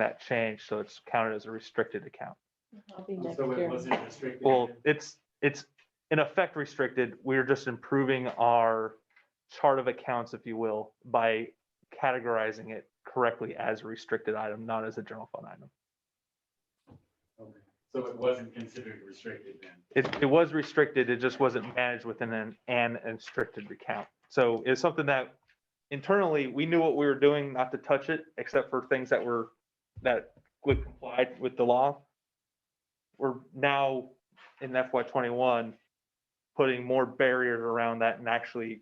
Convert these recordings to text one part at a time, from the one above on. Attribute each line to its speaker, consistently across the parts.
Speaker 1: that changed, so it's counted as a restricted account.
Speaker 2: I'll be next
Speaker 3: So it
Speaker 2: year.
Speaker 3: wasn't restricted.
Speaker 1: Well, it's, it's in effect restricted. We're just improving our chart of accounts, if you will, by categorizing it correctly as a restricted item, not as a general fund item.
Speaker 3: Okay. So it wasn't considered restricted then?
Speaker 1: It, it was restricted, it just wasn't managed within an, an restricted account. So it's something that internally, we knew what we were doing, not to touch it, except for things that were, that would comply with the law. We're now in FY twenty-one, putting more barriers around that and actually,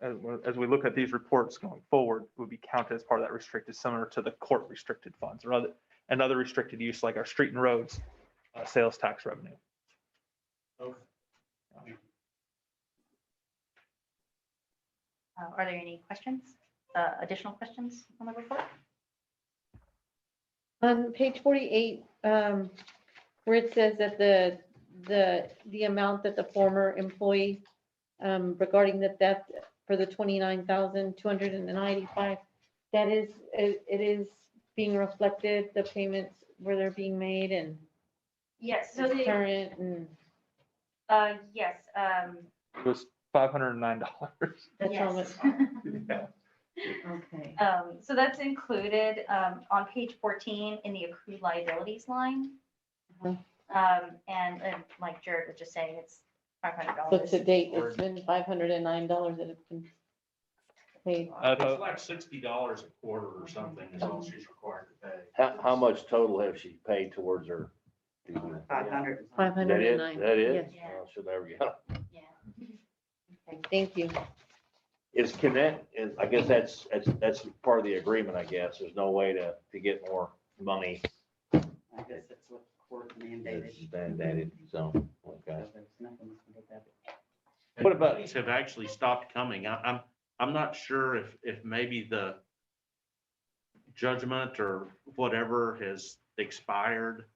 Speaker 1: as, we- as we look at these reports going forward, would be counted as part of that restricted, similar to the court restricted funds or other, another restricted use like our street and roads, uh, sales tax revenue.
Speaker 3: Okay.
Speaker 4: Uh, Are there any questions, uh, additional questions on the report?
Speaker 2: On page forty-eight, um, where it says that the, the, the amount that the former employee um, regarding the theft for the twenty-nine thousand, two hundred and ninety-five, that is, it it is being reflected, the payments where they're being made and
Speaker 4: Yes, so
Speaker 2: it's
Speaker 4: the,
Speaker 2: current and
Speaker 4: uh, yes, um,
Speaker 1: It was five hundred and nine dollars.
Speaker 2: that's how much.
Speaker 4: yes.
Speaker 2: Okay.
Speaker 4: Um, So that's included um, on page 14 in the accrued liabilities line.
Speaker 2: Mhm.
Speaker 4: Um, And uh, like Jared was just saying, it's
Speaker 2: So to
Speaker 4: $500.
Speaker 2: date, it's been five hundred and nine dollars that it's been paid.
Speaker 1: I thought-
Speaker 3: It's like sixty dollars a quarter or something is all she's required to pay.
Speaker 5: How, how much total have she paid towards her? That
Speaker 6: Five hundred.
Speaker 2: Five
Speaker 5: is,
Speaker 2: hundred and nine.
Speaker 5: that is?
Speaker 4: Yes.
Speaker 5: Oh, She'll never get, it.
Speaker 4: Yeah.
Speaker 2: Thank you.
Speaker 5: is can that, is, I guess that's, that's, that's part of the agreement, I guess. There's no way to, to get more money
Speaker 6: I guess that's what court mandated.
Speaker 5: that's mandated, so, okay.
Speaker 6: So there's nothing we can do about it.
Speaker 5: What about-
Speaker 7: These have actually stopped coming. I, I'm, I'm not sure if, if maybe the judgment or whatever has expired,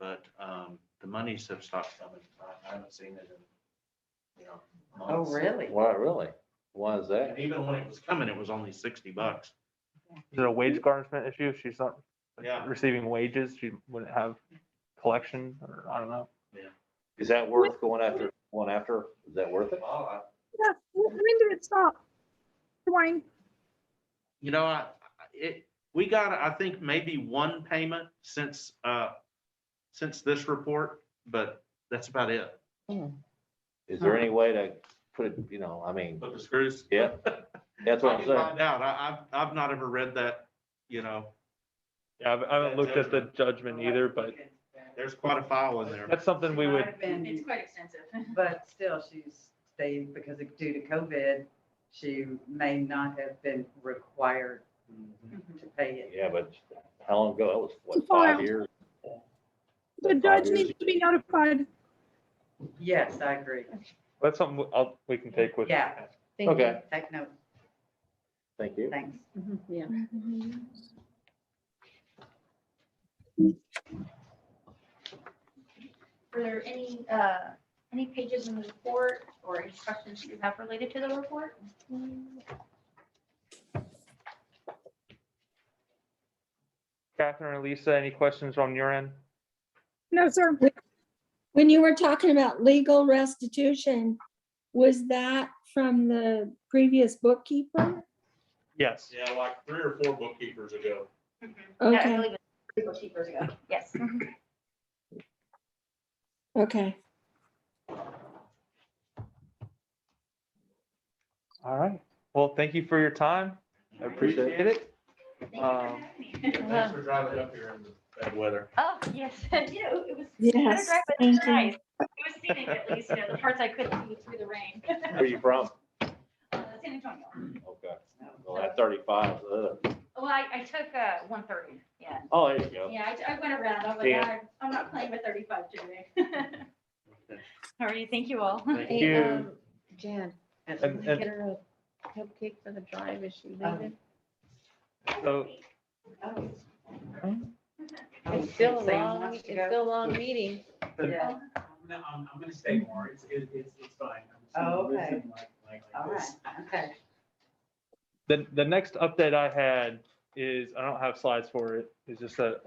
Speaker 7: but, um, the monies have stopped coming.
Speaker 3: I I haven't seen it in, you know.
Speaker 6: Oh,
Speaker 3: months.
Speaker 6: really?
Speaker 5: Why, really? Why is that?
Speaker 7: And even when it was coming, it was only sixty bucks.
Speaker 1: Is it a wage garnishment issue? If She's not
Speaker 7: Yeah.
Speaker 1: receiving wages, she wouldn't have collection, or I don't know.
Speaker 5: Is that worth going after, going after? Is that worth it?
Speaker 3: Well, I-
Speaker 8: Yeah, when when did it stop? Dwayne,
Speaker 7: You know, I, I- it, we got, I think, maybe one payment since, uh, since this report, but that's about it.
Speaker 5: Is there any way to put it, you know, I mean,
Speaker 7: But the screws.
Speaker 5: yeah, that's what
Speaker 7: I
Speaker 5: I'm
Speaker 7: can
Speaker 5: saying.
Speaker 7: find out. I, I've, I've not ever read that, you know,
Speaker 1: Yeah, I haven't looked at the judgment either, but
Speaker 7: there's quite a file in there.
Speaker 1: that's something we would,
Speaker 6: I've been-
Speaker 4: quite extensive.
Speaker 6: But still, she's stayed because of- due to COVID, she may not have been required to pay it.
Speaker 5: Yeah, but how long ago? That was, what,
Speaker 8: Filed.
Speaker 5: five years?
Speaker 8: the
Speaker 5: Five
Speaker 8: judge
Speaker 5: years.
Speaker 8: needs to be notified.
Speaker 6: Yes, I agree.
Speaker 1: that's something I'll, we can take with.
Speaker 6: Yeah.
Speaker 2: Thank you.
Speaker 5: Okay,
Speaker 6: Take note.
Speaker 5: thank you.
Speaker 6: Thanks.
Speaker 2: Mhm, Yeah.
Speaker 4: Mm-hmm. Were there any, uh, any pages in the report or any questions you have related to the report? Mm-hmm.
Speaker 1: Catherine or Lisa, any questions on your end?
Speaker 8: No, sir.
Speaker 9: When you were talking about legal restitution, was that from the previous bookkeeper?
Speaker 1: Yes.
Speaker 3: Yeah, like three or four bookkeepers ago.
Speaker 4: Yeah, I
Speaker 9: Okay.
Speaker 4: believe it's three or two years ago. Yes.
Speaker 9: Okay.
Speaker 1: All right. Well, thank you for your time. I
Speaker 5: Appreciate it.
Speaker 1: appreciate it.
Speaker 4: Thank you for
Speaker 1: Um,
Speaker 4: having me.
Speaker 3: Thanks for driving up here in the bad weather.
Speaker 4: Oh, yes, I do. It was.
Speaker 9: Yes,
Speaker 4: Drive, but
Speaker 9: thank
Speaker 4: it's
Speaker 9: you.
Speaker 4: nice. It was scenic at least, you know, the parts I couldn't see through the rain.
Speaker 5: Where are you from?
Speaker 4: Uh, San Antonio.
Speaker 5: Okay, well, that thirty-five, ugh.
Speaker 4: Well, I, I took uh, 130, yeah.
Speaker 5: oh, there you go.
Speaker 4: Yeah, I, I went around. I'm like,
Speaker 5: Yeah.
Speaker 4: "I- I'm not playing with 35 today. All right, thank you all.
Speaker 7: Thank
Speaker 2: Hey,
Speaker 1: you.
Speaker 2: um, Jan,
Speaker 1: And-
Speaker 2: get her a cupcake for the drive, is she
Speaker 6: Um,
Speaker 2: leaving?
Speaker 1: So
Speaker 6: Oh. Oh,
Speaker 2: It's still a
Speaker 6: Sam
Speaker 2: long,
Speaker 6: wants
Speaker 2: it's
Speaker 6: to go?
Speaker 2: still a long meeting.
Speaker 6: Yeah.
Speaker 3: No, I'm, I'm gonna stay more. It's, it- it's, it's fine. I'm just
Speaker 6: Oh,
Speaker 3: gonna
Speaker 6: okay.
Speaker 3: listen like- like- like
Speaker 6: All
Speaker 3: this.
Speaker 6: right, okay.
Speaker 1: the, the next update I had is, I don't have slides for it. It's just a,